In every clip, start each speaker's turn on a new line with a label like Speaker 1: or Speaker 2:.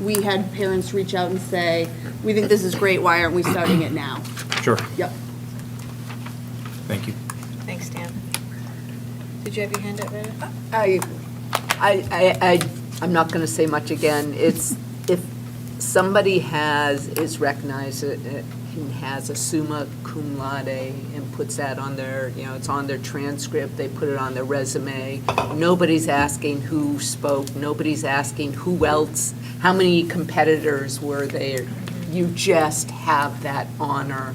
Speaker 1: we had parents reach out and say, we think this is great, why aren't we starting it now?
Speaker 2: Sure,
Speaker 1: Yep.
Speaker 2: thank you.
Speaker 3: Thanks, Dan. Did you have your hand up, Rheta?
Speaker 4: I, I, I, I- I'm not going to say much again. It's, if somebody has, is recognized, uh, and has a summa cum laude and puts that on their, you know, it's on their transcript, they put it on their resume. Nobody's asking who spoke, nobody's asking who else, how many competitors were there. You just have that honor.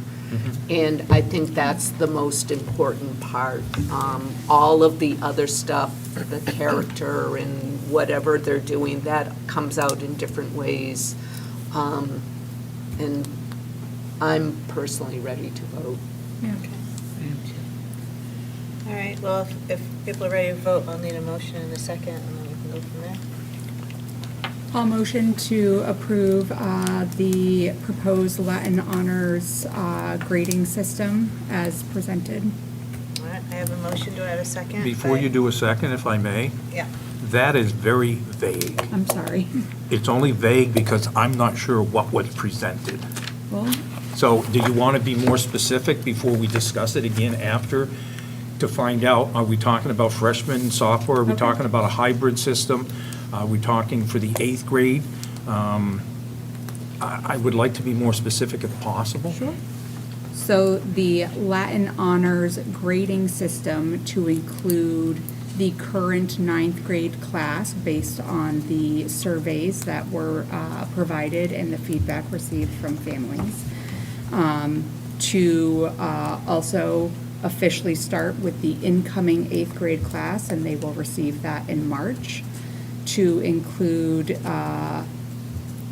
Speaker 4: And I think that's the most important part. Um, All of the other stuff, the character and whatever they're doing, that comes out in different ways. Um, And I'm personally ready to vote.
Speaker 3: All right, well, if- if people are ready to vote, I'll need a motion in a second, and then we can go from there.
Speaker 5: I'll motion to approve uh, the proposed Latin honors uh, grading system as presented.
Speaker 3: All right, I have a motion, do I have a second?
Speaker 2: Before you do a second, if I may,
Speaker 3: Yeah,
Speaker 2: that is very vague.
Speaker 5: I'm sorry.
Speaker 2: It's only vague because I'm not sure what was presented.
Speaker 5: Well,
Speaker 2: So do you want to be more specific before we discuss it again after to find out, are we talking about freshman software? Are we
Speaker 5: Okay.
Speaker 2: talking about a hybrid system? Are we talking for the eighth grade? Um, I I would like to be more specific if possible. Sure.
Speaker 5: so the Latin honors grading system to include the current ninth grade class based on the surveys that were uh, provided and the feedback received from families. um, to uh, also officially start with the incoming eighth grade class, and they will receive that in March, to include uh,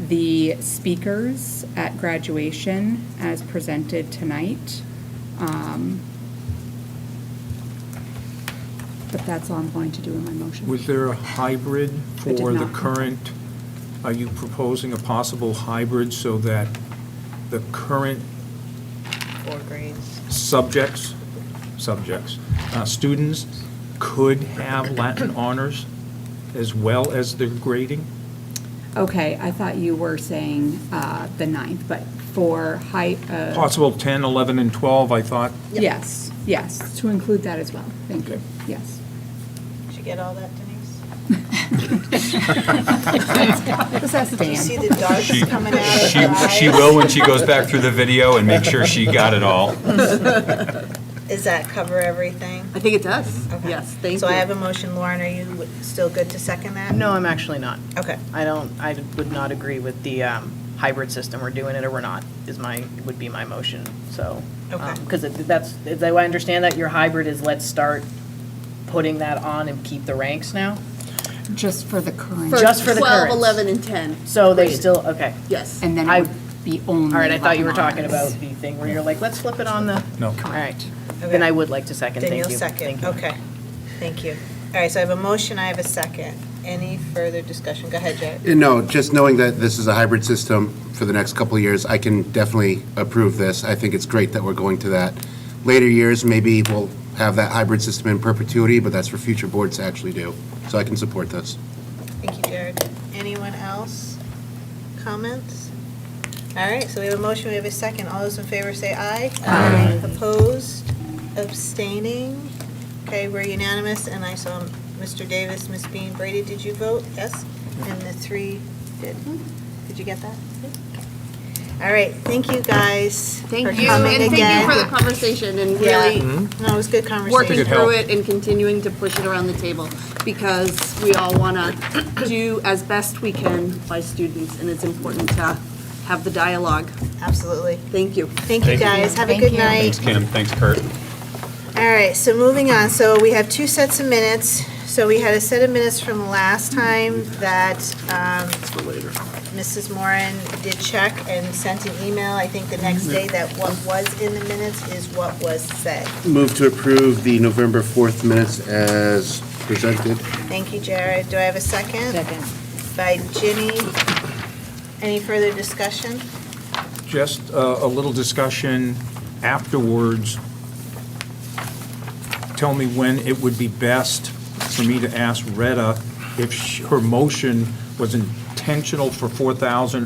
Speaker 5: the speakers at graduation as presented tonight. Um, But that's all I'm going to do in my motion.
Speaker 2: Was there a hybrid
Speaker 5: did
Speaker 2: for the
Speaker 5: not.
Speaker 2: current, are you proposing a possible hybrid so that the current
Speaker 3: four grades.
Speaker 2: subjects, subjects, uh, students could have Latin honors as well as their grading?
Speaker 5: Okay, I thought you were saying uh, the ninth, but for high, uh,
Speaker 2: Possible 10, 11, and 12, I thought.
Speaker 5: Yes, yes, to include that as well. Thank you.
Speaker 2: Okay.
Speaker 5: Yes.
Speaker 3: Did you get all that, Denise?
Speaker 5: Just ask
Speaker 3: Do you see
Speaker 5: Dan.
Speaker 3: the darts coming out of her
Speaker 6: She, she
Speaker 3: eyes?
Speaker 6: will when she goes back through the video and make sure she got it all.
Speaker 3: Does that cover everything?
Speaker 4: I think it does.
Speaker 3: Okay.
Speaker 4: Yes, thank you.
Speaker 3: So I have a motion, Lauren, are you w- still good to second that?
Speaker 7: No, I'm actually not.
Speaker 3: Okay,
Speaker 7: I don't, I would not agree with the um, hybrid system, we're doing it or we're not, is my, would be my motion, so.
Speaker 3: Okay.
Speaker 7: Because that's, is that- I understand that your hybrid is let's start putting that on and keep the ranks now?
Speaker 5: Just for the current.
Speaker 7: Just for the
Speaker 1: 12,
Speaker 7: currents.
Speaker 1: 11, and 10,
Speaker 7: So they still, okay.
Speaker 1: yes.
Speaker 5: And then
Speaker 7: I-
Speaker 5: it would be only.
Speaker 7: All right, I thought you were talking
Speaker 5: Latin
Speaker 7: about
Speaker 5: honors.
Speaker 7: the thing where you're like, let's flip it on the.
Speaker 2: No.
Speaker 7: All right,
Speaker 3: Okay.
Speaker 7: then I would like to second, thank
Speaker 3: then
Speaker 7: you.
Speaker 3: you'll
Speaker 7: Thank
Speaker 3: second,
Speaker 7: you.
Speaker 3: okay. Thank you. All right, so I have a motion, I have a second. Any further discussion? Go ahead, Jared.
Speaker 8: Uh, No, just knowing that this is a hybrid system for the next couple of years, I can definitely approve this. I think it's great that we're going to that. Later years, maybe we'll have that hybrid system in perpetuity, but that's for future boards to actually do. So I can support this.
Speaker 3: Thank you, Jared. Anyone else? Comments? All right, so we have a motion, we have a second. All those in favor say aye. Aye. Opposed, abstaining? Okay, we're unanimous, and I saw Mr. Davis, Ms. Bean, Brady, did you vote? Yes? And the three did. Did you get that? Okay. All right, thank you, guys. for
Speaker 1: Thank you,
Speaker 3: coming
Speaker 1: and thank
Speaker 3: again.
Speaker 1: you for the conversation and
Speaker 3: Yeah.
Speaker 1: really
Speaker 3: No, it was good
Speaker 1: working
Speaker 3: conversation.
Speaker 1: through it and continuing to push it around the table because we all want to do as best we can by students, and it's important to have the dialogue.
Speaker 3: Absolutely.
Speaker 1: Thank you.
Speaker 3: Thank you, guys. Have a good night.
Speaker 6: Thanks, Kim. Thanks, Kurt.
Speaker 3: All right, so moving on, so we have two sets of minutes. So we had a set of minutes from last time that um, Mrs. Moran did check and sent an email, I think the next day, that what was in the minutes is what was said.
Speaker 8: Move to approve the November 4th minutes as presented.
Speaker 3: Thank you, Jared. Do I have a second? Second. By Ginny. Any further discussion?
Speaker 2: Just uh, a little discussion afterwards. Tell me when it would be best for me to ask Retta if sh- her motion was intended intentional for 4,000